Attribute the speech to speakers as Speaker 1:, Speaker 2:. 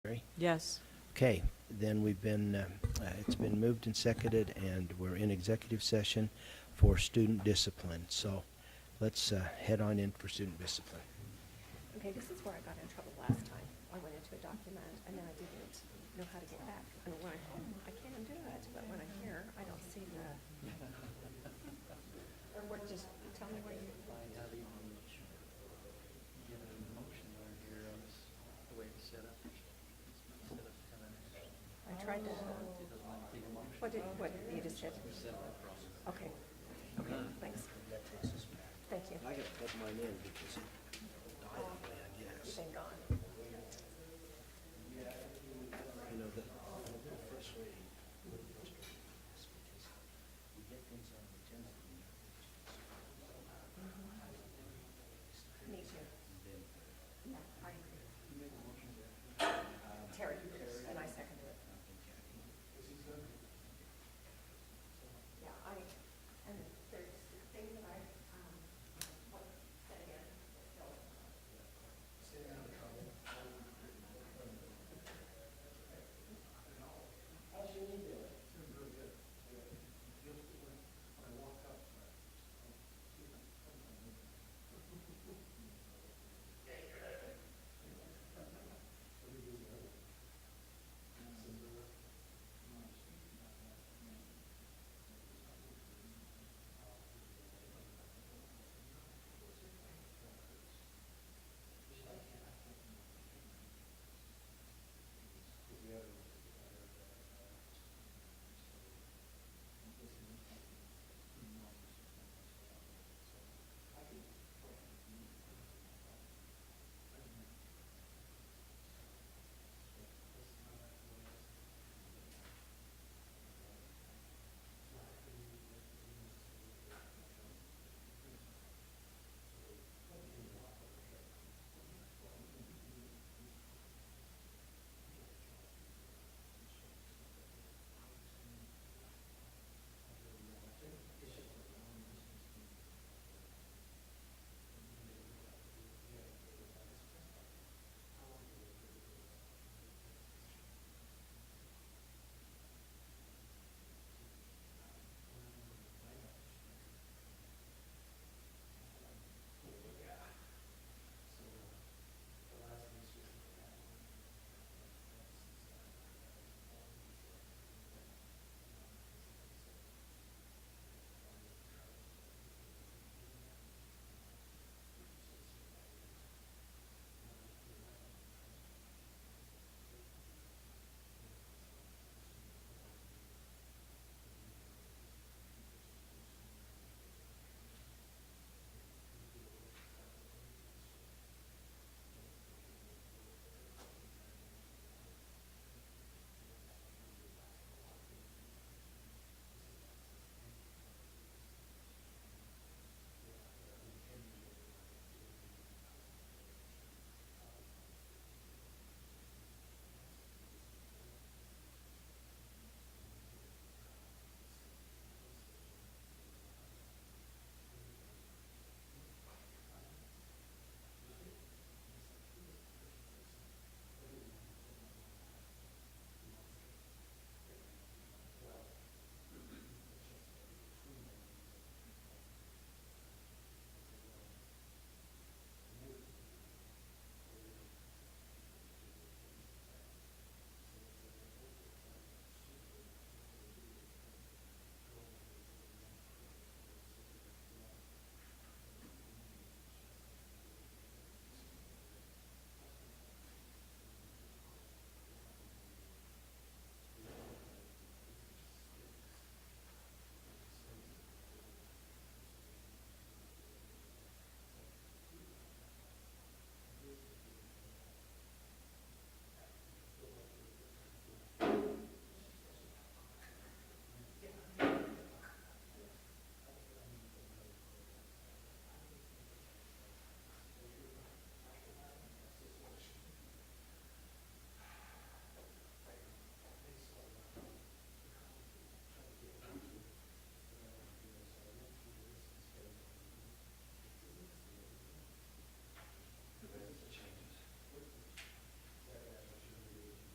Speaker 1: agree?
Speaker 2: Yes.
Speaker 1: Okay, then we've been, uh, uh, it's been moved and seconded, and we're in executive session for student discipline. So let's uh, head on in for student discipline.
Speaker 3: Okay, this is where I got in trouble last time. I went into a document and then I didn't know how to get back. And when I'm home, I can undo it, but when I'm here, I don't see the. Or what, just tell me where you.
Speaker 4: find out even which, given the motions are here on this, the way it's set up. Set up kind of, it
Speaker 3: I tried to,
Speaker 4: doesn't like big motion.
Speaker 3: what did, what, you just said?
Speaker 4: Set up across.
Speaker 3: Okay. Okay, thanks. Thank you.
Speaker 1: I gotta plug mine in because
Speaker 3: You've been gone.